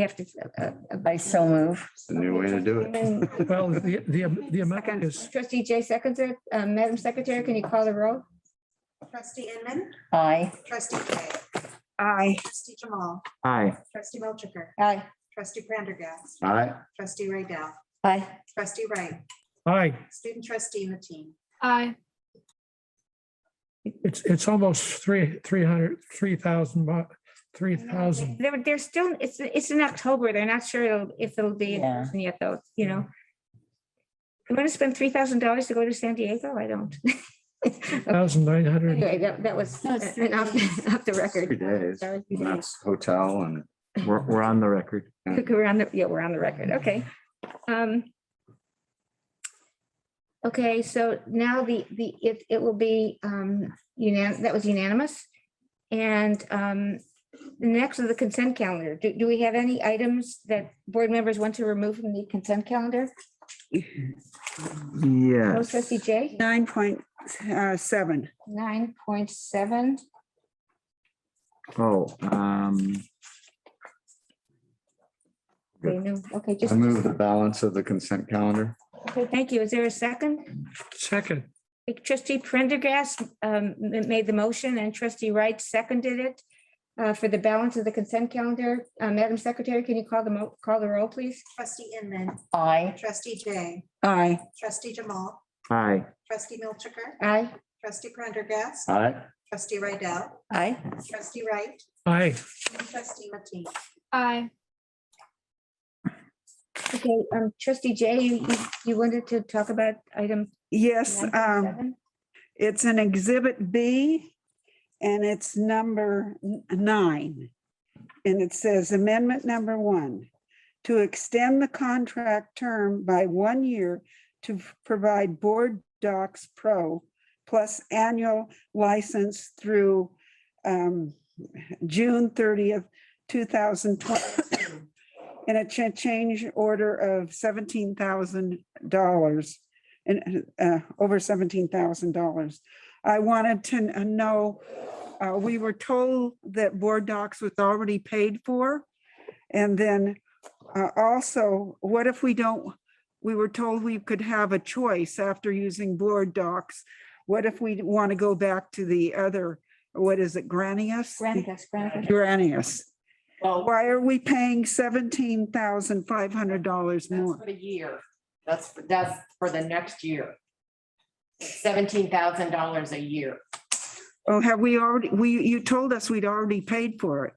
have to, uh, uh, by so move. It's the new way to do it. Well, the, the, the amount is, Trustee Jay seconds it. Uh, Madam Secretary, can you call the roll? Trustee Inman, Aye. trustee Kay. Aye. Trustee Jamal, Aye. trustee Melchiker, Aye. trustee Prendergast, All right, trustee Ray Dell, Aye. trustee Wright, aye, student trustee Mateen. Aye. it's, it's almost three, three hundred, three thousand, three thousand. They're, they're still, it's, it's in October. They're not sure it'll- if it'll be in Yeah. person yet though, you know? I'm gonna spend three thousand dollars to go to San Diego. I don't. Thousand nine hundred. Anyway, that, that was No, it's uh, an off, off the record. Three days. Sorry, three and days. that's hotel and We're, we're on the record. Okay, We're on the, yeah, we're on the record, okay. Um. Okay, so now the, the, it, it will be, um, unan, that was unanimous. And, um, next is the consent calendar. Do, do we have any items that board members want to remove from the consent calendar? No, Yes. trustee Jay, Nine point uh, seven. nine point seven, Oh, um, okay, just, I move the balance of the consent calendar. okay, thank you. Is there a second? Second, Trustee Prendergast, um, ma- made the motion and trustee Wright seconded it. Uh, for the balance of the consent calendar, uh, Madam Secretary, can you call the mo, call the roll, please? Trustee Inman, Aye. trustee Jay, Aye. trustee Jamal, aye. trustee Melchiker, Aye. trustee Prendergast, All right, trustee Ray Dell, Aye. trustee Wright, aye. and trustee Mateen. Aye. Okay, um, trustee Jay, you, you- you wanted to talk about item Yes, um, 9.7? it's an exhibit B and it's number n- nine. And it says amendment number one, to extend the contract term by one year to f- provide Board Docs Pro plus annual license through um, June thirtieth, two thousand twenty. And a cha- change order of seventeen thousand dollars and uh, over seventeen thousand dollars. I wanted to n- know, uh, we were told that board docs was already paid for. And then uh, also, what if we don't, we were told we could have a choice after using board docs. What if we want to go back to the other, what is it, Granius? Granicus, Granicus. Granius. Well, E Why are we paying seventeen thousand five hundred dollars that's more? for the year. That's, for- that's for the next year. Seventeen thousand dollars a year. Oh, have we already, we, you told us we'd already paid for it.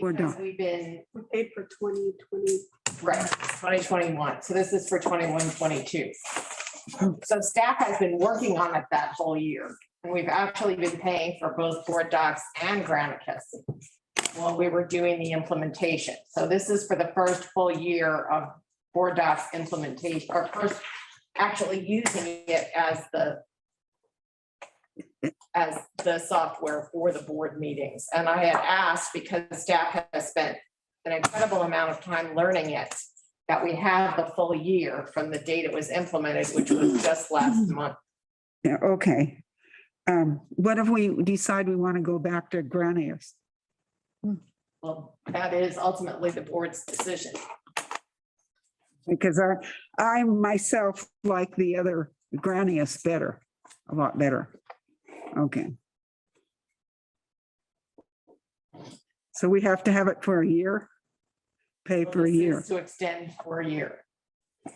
We're Because done. we've been, We paid for twenty twenty. right, twenty twenty-one. So this is for 21, 22. So staff has been working on it that whole year. And we've actually been paying for both board docs and Granicus while we were doing the implementation. So this is for the first full year of board docs implementation, or first actually using it as the as the software for the board meetings. And I had asked because staff has spent an incredible amount of time learning it, that we have the full year from the date it was implemented, which was just Mm-hmm. last month. Yeah, okay. Um, what if we decide we want to go back to Granius? Well, that is ultimately the board's decision. Because I, I myself like the other Granius better, a lot better. Okay. So we have to have it for a year? Pay for a This is year. To extend for a year,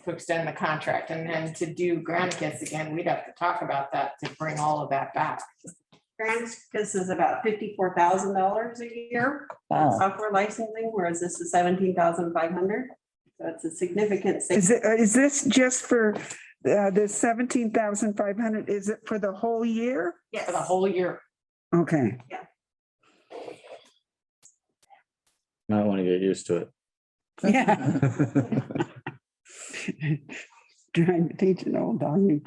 to extend the contract. And then to do Granicus again, we'd have to talk about that to bring all of that back. grants, this is about fifty-four thousand dollars a year, Wow. software licensing, whereas this is seventeen thousand five hundred. So it's a significant savings. Is it, uh, is this just for, uh, the seventeen thousand five hundred? Is it for the whole year? For the whole year, Okay. I want to get used to it. Yeah. Trying to teach an old dog new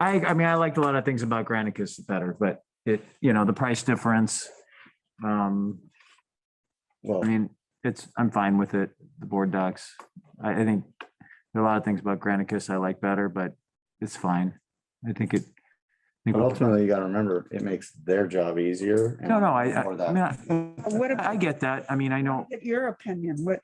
I, I mean, I liked a lot of things about Granicus better, but it, you know, the price difference. Um, Well, I mean, it's, I'm fine with it, the board docs. I, I think there are a lot of things about Granicus I like better, but it's fine. I think it think But we'll- ultimately, you gotta remember, it makes their job easier. and No, no, I, I, for I that. mean, I- What I about get that. I mean, I know. your opinion? What,